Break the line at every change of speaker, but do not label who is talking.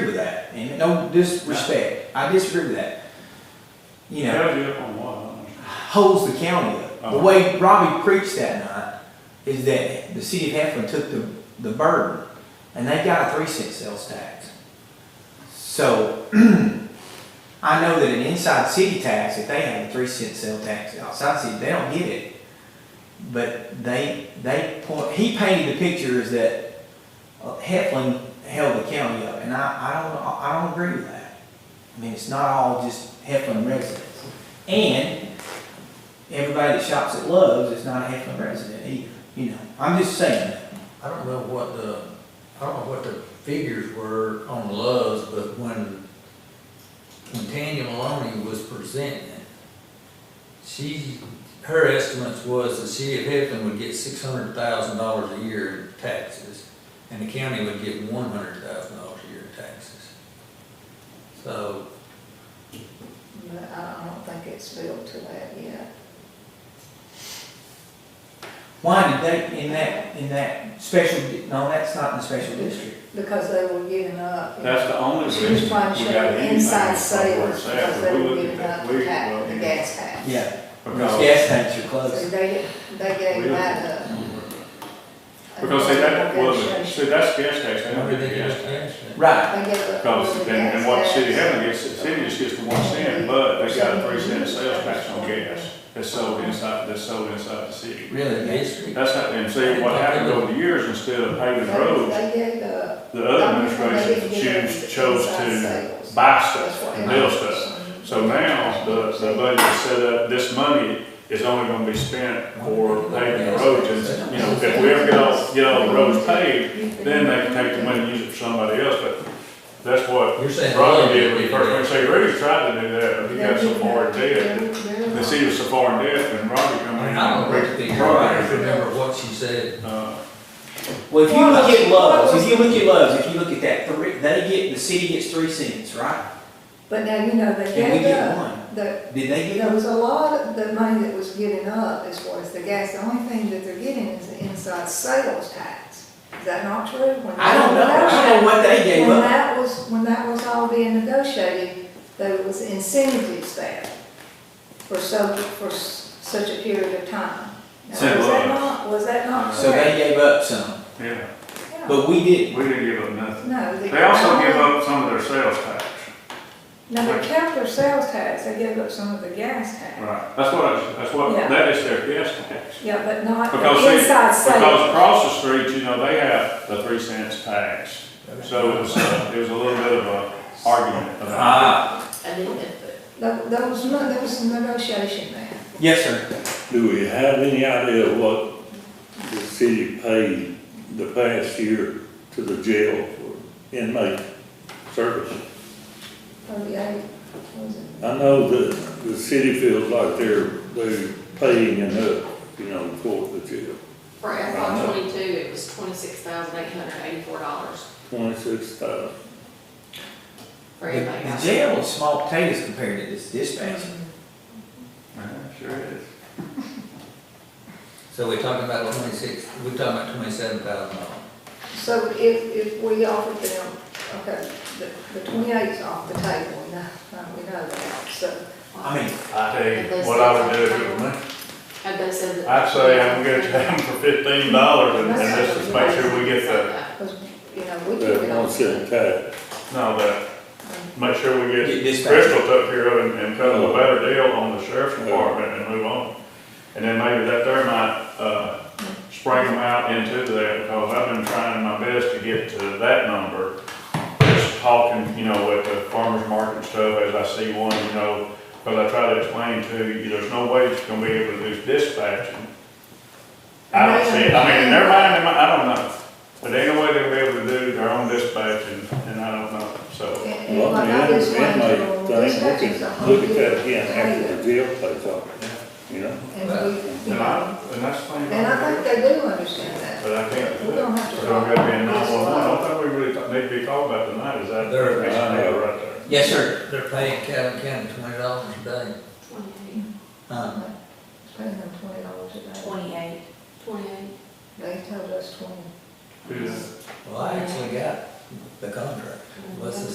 and no disrespect, I disagree with that. You know,
Held you up on what? I don't understand.
holds the county up. The
Uh-huh.
way Robbie preached that night is that the city of Heflin took the, the burden, and they got a three cent sales tax. So, I know that an inside city tax, if they have a three cent sales tax outside city, they don't get it. But they, they point, he painted the picture is that uh, Heflin held the county up, and I, I don't, I don't agree with that. I mean, it's not all just Heflin residents. And everybody that shops at Love's is not a Heflin resident either, you know, I'm just saying.
I don't know what the, I don't know what the figures were on Love's, but when, when Tanya Maloney was presenting it, she, her estimates was the city of Heflin would get six hundred thousand dollars a year in taxes, and the county would get one hundred thousand dollars a year in taxes. So,
But I don't think it's filled to that yet.
Why did they, in that, in that special, di- no, that's not in the special district.
Because they were giving up.
That's the only
She
reason we
was trying
got
to show
anything
inside
from where
sales
it's
because
at,
they
but we
were
looked at
giving up
that,
the
we,
tax, the
well,
gas tax.
Yeah, those
because,
gas tanks are
So
closed.
they, they gave that up.
because see, that wasn't,
Negotiation.
see, that's gas tax, they don't get the
everything
gas
else
tax.
changed.
Right,
They gave up. all
Because,
the
and,
gas
and what the city
tax.
having gets, the city just gets the one cent, but they got a three cent sales tax on gas that's sold inside, that's sold inside the city.
really,
The
they-
history,
That's not, and see, what happened over the years, instead of paving roads,
They gave up.
the other administration choose, chose to buy stuff and build stuff. So now, the, the budget is set up, this money is only gonna be spent for paving the roads, and, you know, if we ever get all, get all the roads paved, then they can take the money and use it for somebody else, but that's what
you're saying.
Robbie did when he first went, so he really tried to do that, but he got so far in debt. The
dead.
city was so far in debt, and Robbie come in
I
and
don't
break
really
the
think, I
program.
don't remember what she said.
Uh,
well, if you look at Love's, if you look at Love's, if you look at that three, they get, the city gets three cents, right?
But now, you know, they
And we
gave
get
up,
one.
the,
Did they get
There
them?
was a lot of the money that was getting up as far as the gas, the only thing that they're getting is the inside sales tax. Is that not true? When
I don't know,
that-
I don't know what they gave
When
up.
that was, when that was all being negotiated, there was incentives there for so, for s- such a period of time. Now,
So it
Was
was.
that not, was that not
So they
correct?
gave up some,
yeah,
Yeah.
but we didn't.
we didn't give up nothing.
No. the-
They also give up some of their sales tax.
No, they kept their sales tax, they gave up some of the gas tax.
Right. That's what, I was- that's what,
Yeah.
that is their gas tax.
Yeah, but not
Because
the
they-
inside
Because
sales.
across the street, you know, they have the three cents tax, so it was, uh, it was a little bit of a argument about.
Ah,
There there was, no- there was some negotiation there.
yes, sir.
Do we have any idea what the city paid the past year to the jail for inmate service?
Thirty-eight, was it?
I know that the city feels like they're, they're paying enough, you know, for the jail,
For FY twenty-two, it was twenty-six thousand eight hundred eighty-four dollars
twenty-six thousand.
for
The
everybody
the
else.
jail is small potatoes compared to this dispatch.
Yeah, Sure is.
So we're talking about twenty-six, we're talking about twenty-seven thousand dollars.
So if, if we offered them, okay, the, the twenty-eight's off the table, no, no, we know that, so.
I mean,
I tell you, what I would do if it was me,
Had they said that.
I'd say I'm gonna get them for fifteen dollars and, and just to make sure we get the,
Because, you know, we took it
That one
off.
cent tax,
no, the, make sure we
Get
get
dispatch.
Crystal took care of and, and cut a better deal on the sheriff's department and move on. And then maybe that there might, uh, spring them out into that, because I've been trying my best to get to that number. Just talking, you know, with the farmer's market and stuff, as I see one, you know, because I try to explain to you, there's no way it's gonna be able to do dispatching. I don't see it, I mean, in their mind, they might- I don't know, but ain't no way they'll be able to do their own dispatching, and I don't know, so.
And- and
well,
like
the
I
inmate
just went through all this, that's
thing, we
just a
can
whole
look at that again after
different
the jail plays off, you know?
thing. And we, you
And
know,
I, and that's the thing.
and I think they do understand that.
But I can't do
We're
that.
gonna have to.
So I'm gonna be in
talk.
911. I don't think we really th- need to be called about tonight, is that?
There it is.
I know, right there.
yes, sir.
They're paying Calvin County twenty dollars a day.
Twenty-eight,
Huh?
Paying them twenty dollars a day.
Twenty-eight,
twenty-eight.
They told us twenty.
Who's-
Well, I actually got the contract. What's the